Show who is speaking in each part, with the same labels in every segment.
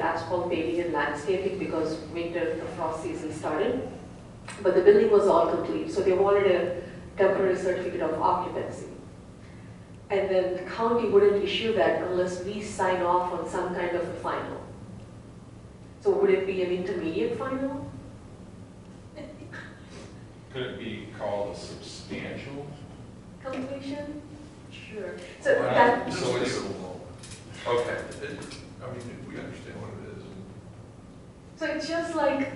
Speaker 1: asphalt paving and landscaping because winter, the frost season started. But the building was all complete, so they wanted a temporary certificate of occupancy. And then the county wouldn't issue that unless we sign off on some kind of a final. So would it be an intermediate final?
Speaker 2: Could it be called a substantial?
Speaker 1: completion? Sure. So
Speaker 2: Wow.
Speaker 1: that,
Speaker 2: Uh, So
Speaker 3: So
Speaker 2: it's-
Speaker 3: it's,
Speaker 2: Okay.
Speaker 3: it, I mean, we understand what it is.
Speaker 1: so it's just like,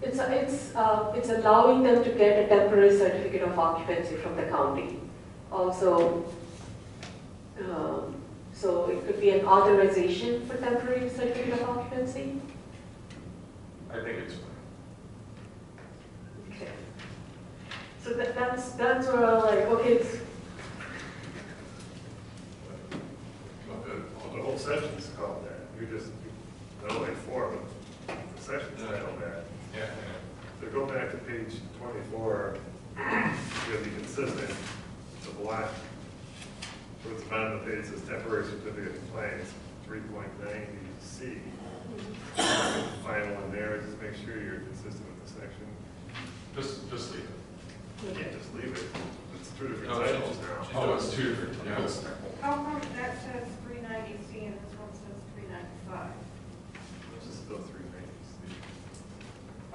Speaker 1: it's, a- it's, uh, it's allowing them to get a temporary certificate of occupancy from the county. Also, um, so it could be an authorization for temporary certificate of occupancy?
Speaker 2: I think it's,
Speaker 1: Okay. So that, that's, that's where I'm like, okay, it's,
Speaker 3: Not good.
Speaker 4: Well, the whole session's called that, you're just, the only form of the session's titled that.
Speaker 2: yeah,
Speaker 4: So go back to page twenty-four, you gotta be consistent, it's a block. Towards the bottom of the page says temporary certificate of compliance, three point ninety C. Final in there, just make sure you're consistent with the section,
Speaker 2: just, just leave it.
Speaker 4: you can't just leave it, it's two different
Speaker 2: No, she
Speaker 4: titles
Speaker 2: just-
Speaker 4: now.
Speaker 2: Oh, it's two different, yeah. it's-
Speaker 5: How come that says three ninety C and this one says three ninety-five?
Speaker 4: Let's Just go three pages.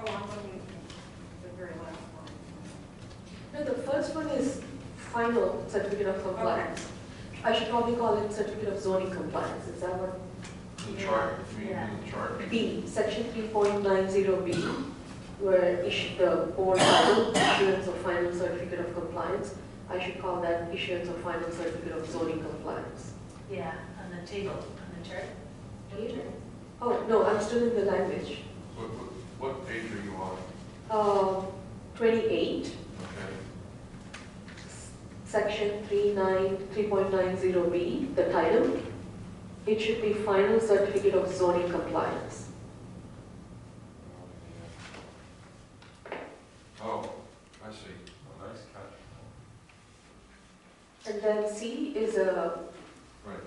Speaker 5: Oh, I'm looking at the very last one.
Speaker 1: no, the first one is final certificate of compliance. I should probably call it certificate of zoning compliance, is that what?
Speaker 3: The chart, if you mean the chart.
Speaker 1: B, section 3.90B, where issue the board final issuance of final certificate of compliance. I should call that issuance of final certificate of zoning compliance.
Speaker 6: Yeah, on the table, on the chart.
Speaker 1: Oh, no, I'm still in the language.
Speaker 3: What, what, what page are you on?
Speaker 1: Uh, 28,
Speaker 3: Okay.
Speaker 1: section 39 3.90B, the title, it should be final certificate of zoning compliance.
Speaker 3: Oh, I see. Oh, Nice catch.
Speaker 1: And then C is a
Speaker 3: Right.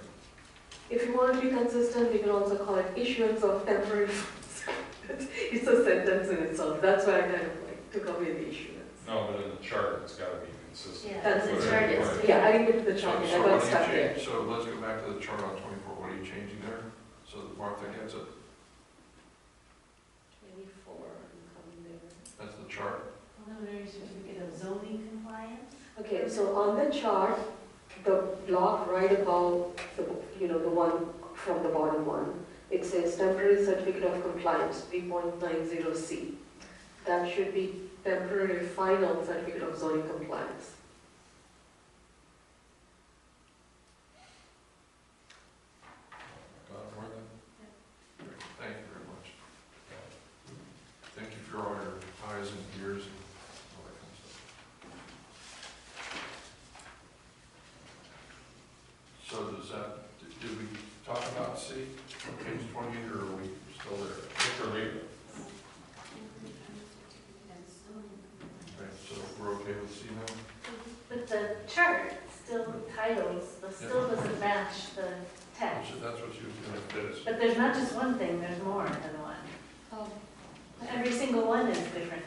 Speaker 1: If you want to be consistent, we can also call it issuance of temporary funds. It's a sentence in itself, that's why I kind of like took away the issuance.
Speaker 2: No, but in the chart, it's gotta be consistent.
Speaker 6: Yeah,
Speaker 1: That's
Speaker 6: the
Speaker 1: it.
Speaker 6: chart is.
Speaker 1: Yeah, I didn't get to the chart, yet.
Speaker 3: So
Speaker 1: I
Speaker 3: what
Speaker 1: got
Speaker 3: are you
Speaker 1: stuck there.
Speaker 3: changing? So let's go back to the chart on twenty-four. What are you changing there? So that Martha gets it.
Speaker 1: Twenty-four, I'm coming
Speaker 3: That's the chart.
Speaker 6: Preliminary certificate of zoning compliance.
Speaker 1: there. Okay, so on the chart, the block right above, the, you know, the one from the bottom one, it says temporary certificate of compliance, three point nine zero C. That should be temporary final certificate of zoning compliance.
Speaker 3: Got it, Martha? Great. Thank you very much. Thank you for all your eyes and ears and all that kind of stuff. So does that, did did we talk about C, on page twenty, or are we still there?
Speaker 2: Just leave it.
Speaker 3: Okay, so we're okay with C now?
Speaker 6: But the chart still titles, the still doesn't match the text.
Speaker 3: So That's what she was gonna fit us.
Speaker 6: But there's not just one thing, there's more than one. Every single one is different.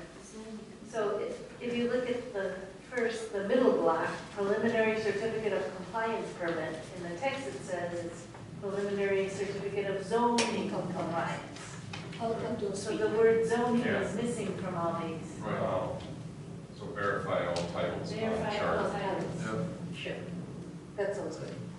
Speaker 6: So if, if you look at the first, the middle block, preliminary certificate of compliance permit, in the text it says it's preliminary certificate of zoning compliance. So the word zoning is missing from all these.
Speaker 3: Right.
Speaker 2: Um, So verify all titles on the
Speaker 6: Verify all
Speaker 2: chart.
Speaker 6: titles.
Speaker 3: Yep.
Speaker 1: Sure. That sounds good.